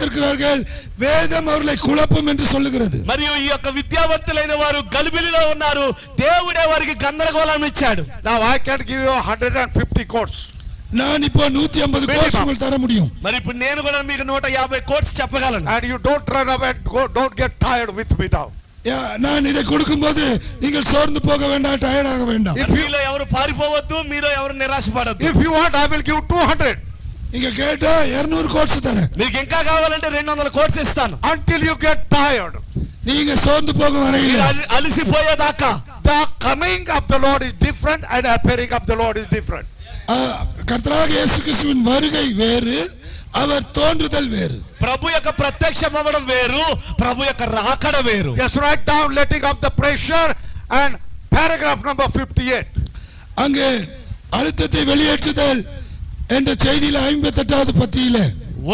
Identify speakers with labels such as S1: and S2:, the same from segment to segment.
S1: அடைத்திருக்கிறார்கள் வேதம் அவர்களை குழப்பம் என்று சொல்லுகிறது
S2: మరియు ఈ యొక్క విద్యావంతులైన వారు గలిబిలిలో ఉన్నారు దేవుడే వారికి గందరగోళం ఇచ్చాడు
S3: Now I can give you 150 quotes.
S1: நான் இப்போ நூத்தி ஐம்பது கோட்ஸ் உங்களுக்கு தர முடியும்
S2: మరి ఇప్పుడు నేను కూడా మీకు నూట యాభై కోట్స్ చెప్పగలను
S3: And you don't run away, and go, don't get tired with me now.
S1: யா- நான் இதை கொடுக்கும்போது நீங்கள் சோர்ந்து போக வேண்டாம் tired ஆக வேண்டாம்
S2: మీలో ఎవరు పారిపోవద్దు మీలో ఎవరు నిరాశపడద్దు
S3: If you want, I will give 200
S1: நீங்க கேட்டா இருநூறு கோட்ஸ் தரேன்
S2: మీకు ఇంకా కావాలంటే రెండు వందల కోట్స్ ఇస్తాను
S3: until you get tired.
S1: நீங்க సోర్ந்து போக
S2: మీరు
S1: வரையில்
S2: అలి- అలసిపోయేదాకా
S3: The coming of the Lord is different and appearing of the Lord is different.
S1: ஆ, கர்த்தராக இயேசு கிறிஸ்துவின் வருகை வேறு அவர் தோன்றுதல் வேறு
S2: ప్రభు యొక్క ప్రత్యక్షం అవ్వడం వేరు ప్రభు యొక్క రాకడ వేరు
S3: Just write down letting of the pressure and paragraph number 58.
S1: அங்கு அழுத்தத்தை வெளியேற்றுதல் என்ற செய்தியில ஐம்பத்தி எட்டாவது பத்தியில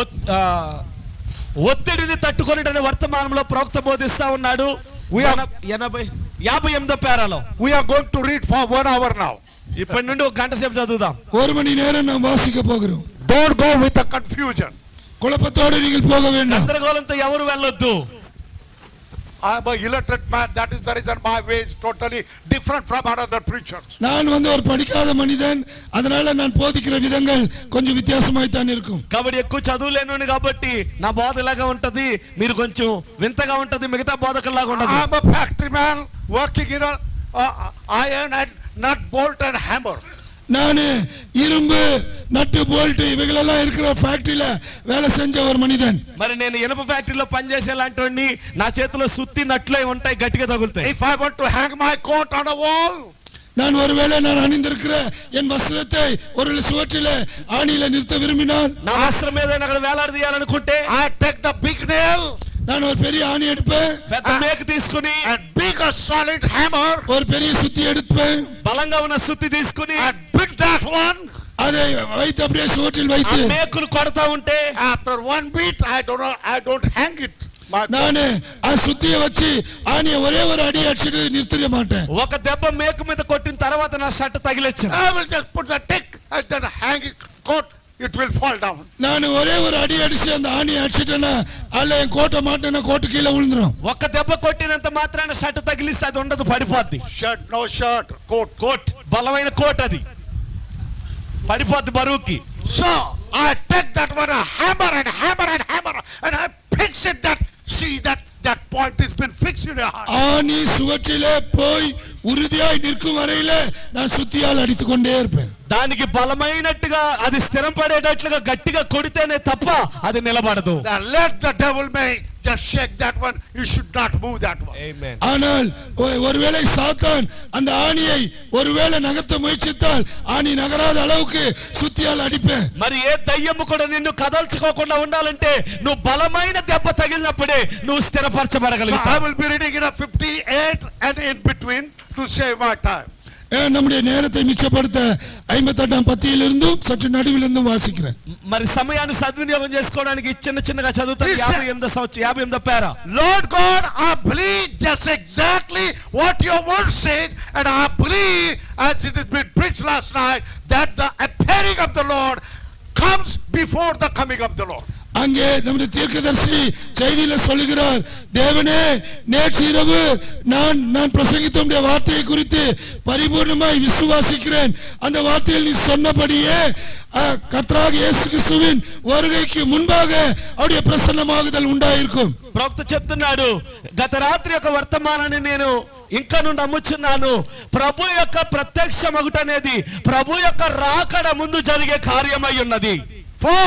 S2: ఒత్- ఆ, ఒత్తిడిని తట్టుకొనిటనే వర్తమానంలో ప్రవక్త బోధిస్తా ఉన్నాడు
S3: We are-
S2: ఎన- ఎనభై యాభై ఎనిమిదో పేరాలో
S3: We are going to read for one hour now.
S2: ఇప్పటి నుండి ఒక గంట సేపు చదువుదాం
S1: ஒரு மணி நேரம் நாம் வாசிக்க போகிறோம்
S3: Don't go with the confusion.
S1: குழப்பத்தோடு நீங்கள் போக வேண்டாம்
S2: గందరగోళంతో ఎవరు వెళ్ళొద్దు
S3: I am a illiterate man. That is the reason my way is totally different from another preachers.
S1: நான் வந்து ஒரு படிக்காத மனிதன் அதனால நான் போதிக்கிற விதங்கள் கொஞ்சம் வித்தியாசமாய்த்தான் இருக்கும்
S2: కాబట్టి ఎక్కువ చదువు లేను కాబట్టి నా బోధ ఇలాగా ఉంటది మీరు కొంచెం వింతగా ఉంటది మిగతా బోధకుల్లాగా ఉండదు
S3: I am a factory man working in a uh, iron and nut bolt and hammer.
S1: நான் இரும்பு நட்டு போல்ட் இவைகளெல்லாம் இருக்கிற ஃபேக்டரியில வேலை செஞ்ச ஒரு மனிதன்
S2: మరి నేను ఇనుప ఫ్యాక్టరీలో పనిచేసే లాంటి నా చేతిలో సుత్తి నట్లే ఉంటాయి గట్టిగా తగులుతాయి
S3: If I want to hang my coat on a wall,
S1: நான் ஒருவேளை நான் அணிந்திருக்கிற என் வஸ்திரத்தை ஒரு சுவற்றில ஆணியில நிறுத்த விரும்பினால்
S2: నా వస్త్రం మీద అక్కడ వేలాడదీయాలనుకుంటే
S3: I take the big nail
S1: நான் ஒரு பெரிய ஆணி எடுப்பேன்
S2: పెద్ద మేకు తీసుకుని
S3: and big a solid hammer
S1: ஒரு பெரிய சுத்தி எடுப்பேன்
S2: బలంగా ఉన్న సుత్తి తీసుకుని
S3: and beat that one.
S1: அதை வைத்து அப்படியே சுவற்றில்
S2: ఆ
S1: வைத்து
S2: మేకును కొడతా ఉంటే
S3: After one beat, I don't know, I don't hang it. My coat.
S1: நான் அந்த சுத்தியை வச்சு ஆணியை ஒரே ஒரு அடி அடிச்சுட்டு நிறுத்திட மாட்டேன்
S2: ఒక దెబ్బ మేకు మీద కొట్టిన తర్వాత నా షర్ట్ తగిలొచ్చు
S3: I will just put the tick and then hang it coat. It will fall down.
S1: நான் ஒரே ஒரு அடி அடிச்சு அந்த ஆணியை அடிச்சிட்டேன்னா அல்ல என் கோட்டை மாட்டேன்னா கோட்டு கீழே விழுந்துரும்
S2: ఒక దెబ్బ కొట్టినంత మాత్రాన షర్ట్ తగిలిస్తే అది ఉండదు పడిపోద్ది
S3: Shirt, no shirt, coat.
S2: Coat బలమైన కోట్ అది పడిపోద్ది బరువుకి
S3: So I take that one, a hammer and hammer and hammer, and I fix it. That see that that point has been fixed in your heart.
S1: ஆணி சுவற்றிலே போய் உறுதியாய் நிற்கும் வரையில நான் சுத்தியால் அடித்து கொண்டே இருப்பேன்
S2: దానికి బలమైనట్టుగా అది స్థిరం పడేటట్లుగా గట్టిగా కొడితేనే తప్ప అది నిలబడదు
S3: Now let the devil make just shake that one. You should not move that one.
S1: ஆனால் ஒ- ஒருவேளை சாத்தான் அந்த ஆணியை ஒருவேளை நகர்த்த முயற்சித்தால் ஆணி நகராத அளவுக்கு சுத்தியால் அடிப்பேன்
S2: మరి ఏ దయ్యము కూడా నిన్ను కదల్చుకోకుండా ఉండాలంటే నువ్వు బలమైన దెబ్బ తగిలినప్పుడే నువ్వు
S3: So I
S2: స్థిరపరచబడగలుగుతావు
S3: will be reading in a 58 and in between to save my time.
S1: ஏன் நம்முடைய நேரத்தை மிச்சப்படுத்த ஐம்பத்தெட்டாம் பத்தியிலிருந்தும் சற்று நடுவிலிருந்தும் வாசிக்கிறேன்
S2: మరి సమయాన్ని సద్వినియోగం చేసుకోవడానికి చిన్న చిన్నగా చదువుతాను
S3: Listen.
S2: యాభై ఎనిమిదో సంవత్సరం యాభై ఎనిమిదో పేర
S3: Lord God, I believe just exactly what your word says, and I believe, as it has been preached last night, that the appearing of the Lord comes before the coming of the Lord.
S1: அங்கே நம்முடைய தீர்க்கதரிசி செய்தியில சொல்லுகிறார் தேவனே நேற்று இரவு நான் நான் பிரசங்கித்த உம்முடைய வார்த்தையை குறித்து பரிபூர்ணமாய் விசுவாசிக்கிறேன் அந்த வார்த்தையில் நீ சொன்னபடியே அஹ், கர்த்தராகிய இயேசு கிறிஸ்துவின் வருகைக்கு முன்பாக அவருடைய பிரசன்னமாகுதல் உண்டாயிருக்கும்
S2: ప్రవక్త చెప్తున్నాడు గత రాత్రి యొక్క వర్తమానాన్ని నేను ఇంకను నమ్ముచున్నాను ప్రభు యొక్క ప్రత్యక్ష అనేది ప్రభు యొక్క రాకడ ముందు జరిగే కార్యమై ఉన్నది
S3: For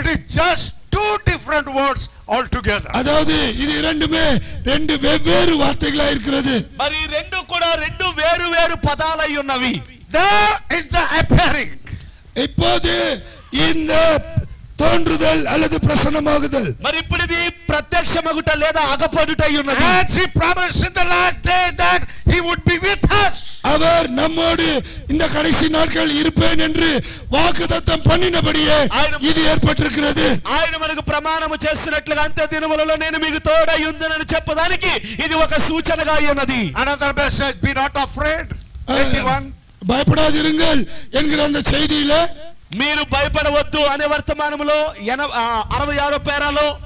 S3: it is just two different words altogether.
S1: அதாவது இது இரண்டுமே ரெண்டு வெவ்வேறு வார்த்தைகளா இருக்கிறது
S2: మరి ఈ రెండు కూడా రెండు వేరు వేరు పదాలై ఉన్నవి
S3: There is the appearing.
S1: இப்போது இந்த தோன்றுதல் அல்லது பிரசன்னமாகுதல்
S2: మరి ఇప్పుడు ఇది ప్రత్యక్షమగుట లేదా అగపడుటై ఉన్నది
S3: As he promised in the last day that he would be with us.
S1: அவர் நம்மோடு இந்த கடைசி நாட்கள் இருப்பேன் என்று வாக்குத்தத்தம் பண்ணினபடியே
S2: ஆயிரம்
S1: இது ஏற்பட்டிருக்கிறது
S2: ఆయన మనకు ప్రమాణము చేస్తున్నట్లుగా అంత్య దినములలో నేను మీకు తోడై ఉందని చెప్పడానికి ఇది ఒక సూచనగా ఉన్నది
S3: Another message, be not afraid.
S1: அஹ்,
S3: 81.
S1: பயப்படாதிருங்கள் என்கிற அந்த செய்தியில
S2: మీరు భయపడవద్దు అనే వర్తమానంలో ఎన అరవై ఆరో పేరాలో